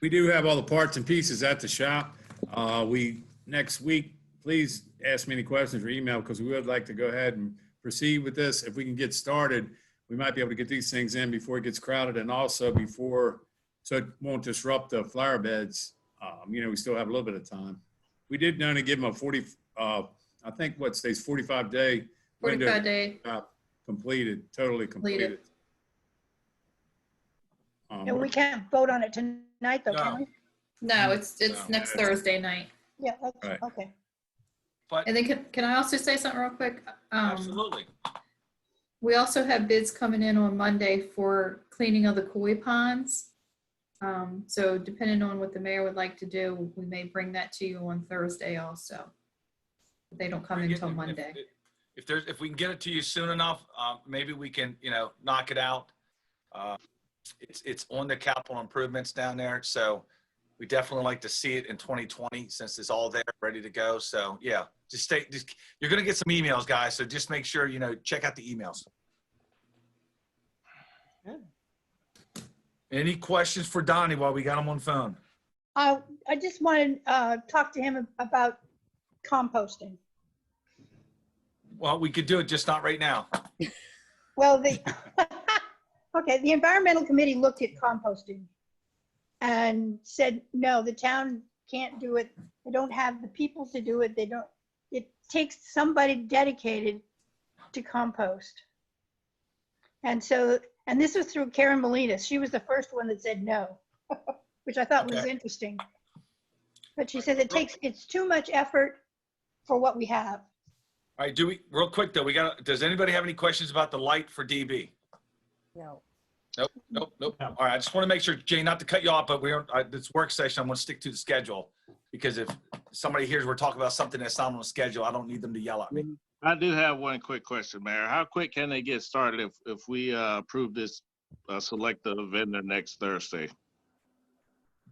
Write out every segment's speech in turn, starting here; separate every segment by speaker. Speaker 1: We do have all the parts and pieces at the shop. Uh, We, next week, please ask me any questions or email because we would like to go ahead and proceed with this. If we can get started, we might be able to get these things in before it gets crowded and also before, so it won't disrupt the flower beds. Um, You know, we still have a little bit of time. We did know to give them a 40, uh, I think what states 45 day window
Speaker 2: 45 day,
Speaker 1: uh, completed, totally completed.
Speaker 2: Completed.
Speaker 1: Um,
Speaker 3: And we can't vote on it tonight, though, can
Speaker 4: No.
Speaker 3: we?
Speaker 4: Mm-hmm.
Speaker 2: no, it's, it's
Speaker 4: No.
Speaker 2: next Thursday night.
Speaker 3: Yeah,
Speaker 1: Right.
Speaker 3: that's- okay.
Speaker 4: But
Speaker 2: And then can, can I also say something real quick? Um,
Speaker 4: absolutely,
Speaker 2: we also have bids coming in on Monday for cleaning of the koi ponds. Um, so depending on what the mayor would like to do, we may bring that to you on Thursday also. They don't come
Speaker 4: Bring it-
Speaker 2: until
Speaker 4: if- if-
Speaker 2: Monday.
Speaker 4: If there's, if we can get it to you soon enough, um, maybe we can, you know, knock it out. Uh, It's, it's on the capital improvements down there, so we definitely like to see it in 2020 since it's all there, ready to go. So, yeah, just stay, just, you're gonna get some emails, guys, so just make sure, you know, check out the emails. Any questions for Donnie while we got him on phone?
Speaker 3: Uh, I just want to talk to him about composting.
Speaker 4: Well, we could do it, just not right now.
Speaker 3: Well, the, okay, the environmental committee looked at composting and said, no, the town can't do it. They don't have the people to do it. They don't, it takes somebody dedicated to compost. And so, and this was through Karen Molina. She was the first one that said no, which I thought was
Speaker 4: Okay.
Speaker 3: interesting. But she says it takes, it's too much effort for what we have.
Speaker 4: All right, do we, real quick though, we got, does anybody have any questions about the light for DB?
Speaker 3: No.
Speaker 4: Nope, nope, nope. All right, I just want to make sure, Jay, not to cut you off, but we're, uh, this work session, I'm going to stick to the schedule. Because if somebody hears we're talking about something that's not on the schedule, I don't need them to yell at me.
Speaker 5: I do have one quick question, Mayor. How quick can they get started if, if we uh, approve this uh, selective vendor next Thursday?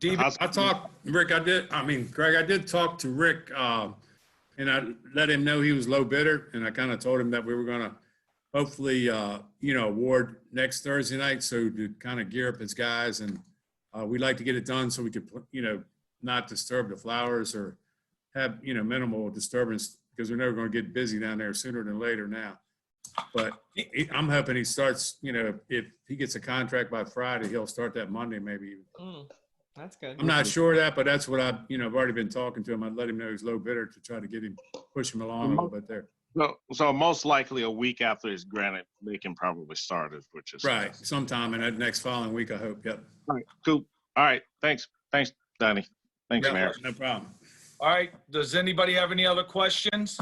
Speaker 4: DB,
Speaker 1: I talked, Rick, I did, I mean, Greg, I did talk to Rick, um, and I let him know he was low bidder, and I kind of told him that we were gonna hopefully, uh, you know, award next Thursday night, so to kind of gear up his guys, and, uh, we'd like to get it done so we could, put- you know, not disturb the flowers or have, you know, minimal disturbance, because we know we're never gonna get busy down there sooner than later now. But he- I'm hoping he starts, you know, if he gets a contract by Friday, he'll start that Monday maybe even.
Speaker 6: Mm, that's good.
Speaker 1: I'm not sure of that, but that's what I, you know, I've already been talking to him. I let him know he's low bidder to try to get him, push him along a little bit there.
Speaker 5: So, so most likely a week after it's granted, they can probably start it, which is.
Speaker 1: Right, sometime in that next following week, I hope. Yep.
Speaker 5: All right, Cool. All right, thanks, thanks, Donnie. Thanks,
Speaker 1: Yeah,
Speaker 5: Mayor.
Speaker 1: No problem.
Speaker 4: all right, does anybody have any other questions?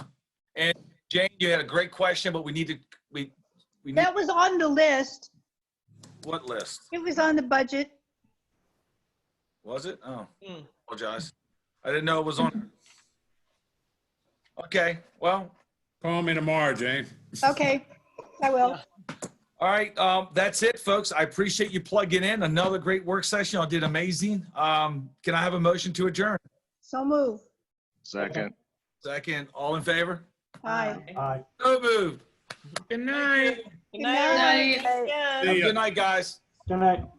Speaker 4: And Jane, you had a great question, but we need to, we, we need,
Speaker 3: That was on the list.
Speaker 4: what list?
Speaker 3: It was on the budget.
Speaker 4: Was it? Oh,
Speaker 6: Mm.
Speaker 4: apologize. I didn't know it was on. Okay, well,
Speaker 1: Call me tomorrow, Jane.
Speaker 3: Okay, I will.
Speaker 4: All right, um, that's it, folks. I appreciate you plugging in. Another great work session. I did amazing. Um, can I have a motion to adjourn?
Speaker 3: So move.
Speaker 5: Second.
Speaker 4: Second, all in favor?
Speaker 3: Aye.
Speaker 2: Um,
Speaker 4: So moved.
Speaker 7: Good night.
Speaker 3: Good night.
Speaker 2: Night.
Speaker 4: Have a Good night, guys.